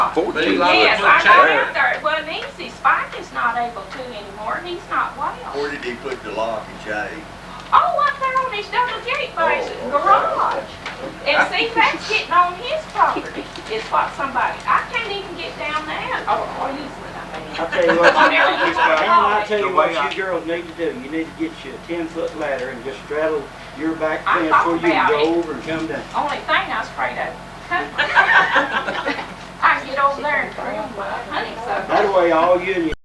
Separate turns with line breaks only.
like fourteen.
Like
Yes,
put
I got
Chad-
out there, it wasn't easy, Spike is not able to anymore, and he's not well.
Where did he put the lock and chain?
Oh, up there on his double gate by his
Oh, okay.
garage. And see, that's getting on his property, is what somebody, I can't even get down there, oh, or easement, I mean.
I'll tell you what,
On
Alan,
there, you got the
I'll
lodge.
tell you
The
what
way I-
you girls need to do. You need to get you a ten-foot ladder and just straddle your back
I
fence
thought
so you can
about
go
it.
over and come down.
Only thing I was afraid of. I can get over there and trim my honeysuckle.
That way, all you and your